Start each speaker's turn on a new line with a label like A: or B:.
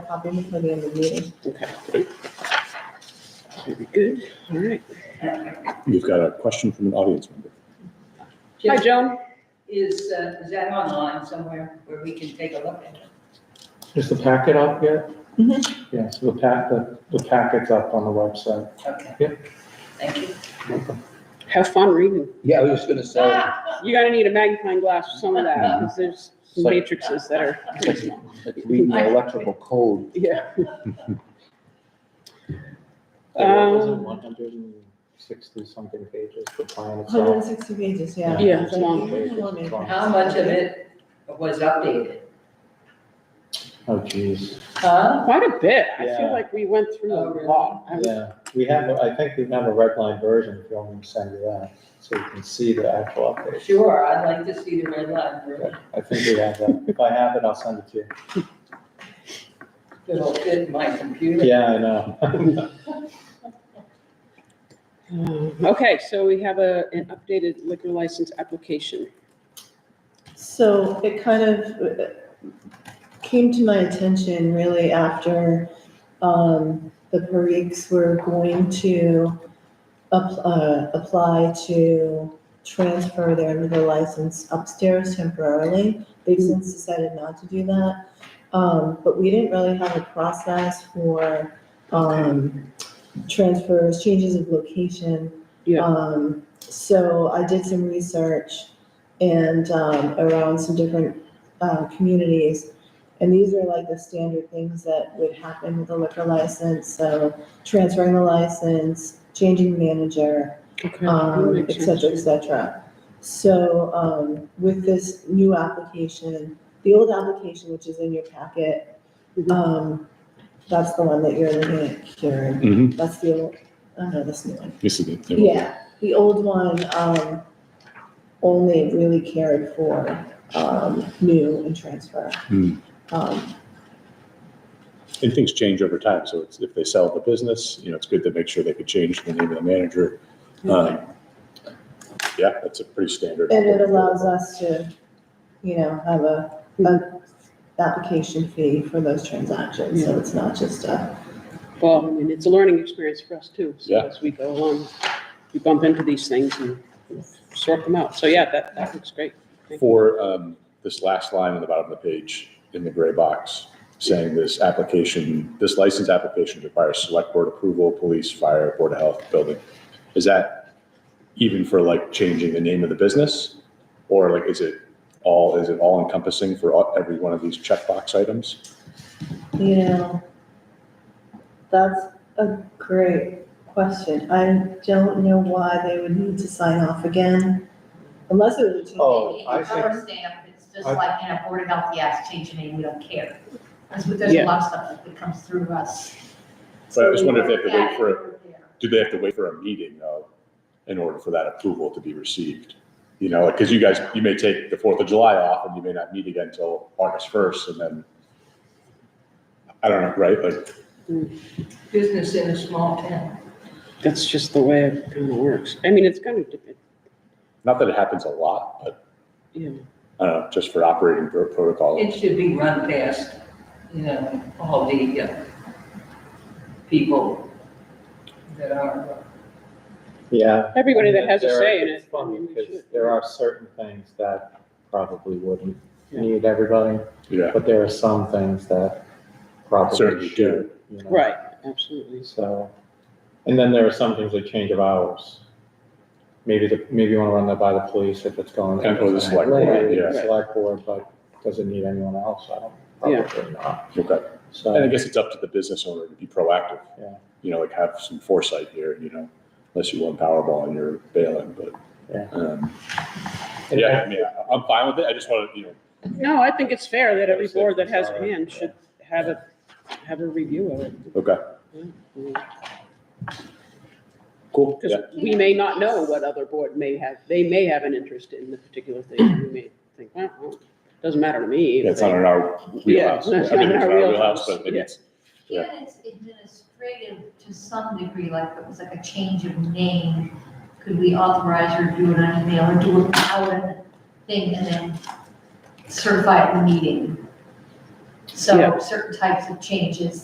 A: copy them for the end of the meeting.
B: Okay. Very good, all right.
C: We've got a question from an audience member.
B: Hi, Joan.
D: Is, uh, is that online somewhere where we can take a look at it?
E: Is the packet up yet?
A: Mhm.
B: Mm-hmm.
E: Yeah, so the pack, the, the packet's up on the website.
D: Okay.
E: Yep.
D: Thank you.
B: Have fun reading.
F: Yeah, I was just gonna say,
B: You're gonna need a magnifying glass for some of that, because there's some matrices that are pretty small.
F: like reading the electrical code.
B: Yeah.
E: It was
B: Um,
E: one hundred and sixty something pages, the
B: Oh,
E: plan
A: Hundred and
E: itself.
A: sixty pages, yeah.
B: Yeah, it's long.
A: long.
D: How much of it was updated?
E: Oh geez,
D: Huh?
B: Quite a bit. I feel
E: Yeah.
B: like we went through
D: Oh,
B: a
D: really?
B: lot. I was-
E: yeah, we have, a- I think we have a red line version, if you want me to send you that, so you can see the actual update.
D: Sure, I'd like to see the red line version.
E: I think we have that, if I have it, I'll send it to you.
D: It'll fit my computer.
E: Yeah, I know.
B: Um, Okay, so we have a, an updated liquor license application.
A: So it kind of uh, came to my attention really after um, the Pariks were going to up- uh, apply to transfer their liquor license upstairs temporarily. They've since decided not to do that. Um, But we didn't really have a process for um, transfers, changes of location.
B: Yeah.
A: Um, So I did some research and um, around some different uh, communities. And these are like the standard things that would happen with a liquor license. So transferring the license, changing manager,
B: Okay.
A: um,
B: That
A: et
B: makes
A: cetera, et
B: sense.
A: cetera. So, um, with this new application, the old application, which is in your packet,
B: Mhm.
A: um, that's the one that you're looking at, Karen.
C: Mm-hmm.
A: That's the old, oh no, that's the new one.
C: This is it.
A: Yeah, the old one, um, only really cared for, um, new and transfer.
C: Hmm.
A: Um,
C: And things change over time, so it's, if they sell the business, you know, it's good to make sure they could change the name of the manager. Um, Yeah, that's a pretty standard.
A: and it allows us to, you know, have a, a application fee for those transactions, so it's not just a,
B: Well, and it's a learning experience for us too. So
C: Yeah.
B: as we go along, we bump into these things and sort them out. So yeah, that, that looks great.
C: For um, this last line on the bottom of the page, in the gray box, saying this application, this license application requires select board approval, police, fire, board of health, building. Is that even for like changing the name of the business? Or like, is it all, is it all encompassing for all- every one of these checkbox items?
A: you know. That's a great question. I don't know why they would need to sign off again, unless it was a change.
E: Oh, I
G: It's
E: think-
G: rubber stamp, it's just
E: I-
G: like in a board of health, yes, change your name, we don't care. That's what, there's
B: Yeah.
G: a lot of stuff that comes through us.
C: But I just wonder if they have to wait for, a-
G: it.
C: do they have to wait for a meeting though, in order for that approval to be received? You know, because you guys, you may take the Fourth of July off and you may not meet again until August first and then, I don't know, right? Like,
D: Business in a small town.
B: That's just the way it kind of works. I mean, it's kind of, it-
C: not that it happens a lot, but
B: yeah.
C: I don't know, just for operating pro- protocol.
D: It should be run past, you know, all the uh, people that are uh,
E: Yeah.
B: Everybody that has a
E: There are-
B: say in it.
E: It's funny,
B: I mean, we
E: because
B: should.
E: there are certain things that probably wouldn't
B: Yeah.
E: need everybody
C: Yeah,
E: But there are some things that probably
C: Certainly do.
E: should. you know,
B: Right, absolutely.
E: So, and then there are some things like change of hours. Maybe the, maybe you want to run that by the police if it's going.
C: And or the select
B: board,
E: Right,
C: yeah.
E: Select board, but does it need anyone else? I don't,
B: Yeah.
E: probably not.
C: okay. And I
E: So,
C: guess it's up to the business owner to be proactive.
E: Yeah.
C: You know, like have some foresight here, you know, unless you won Powerball and you're bailing, but.
E: Yeah.
C: um,
E: And
C: Yeah, I mean, I- I'm fine with it. I just want to, you know,
B: No, I think it's fair that every
E: That's it,
B: board that has a
E: sorry.
B: hand should have a, have a review of it.
C: okay, cool. Yeah.
B: Because we may not know what other board may have, they may have an interest in the particular thing, and we may think, well, well, doesn't matter to me.
C: Yeah, It's not in our
B: Yeah,
C: wheelhouse.
B: it's
C: I mean,
B: not in
C: it's
B: our
C: not
B: wheelhouse,
C: But
B: yeah.
C: it's,
G: Even it's administrative to some degree, like it was like a change of name, could we authorize or do it on email or do it out in a thing and then certify at the meeting? So
B: Yeah.
G: certain types of changes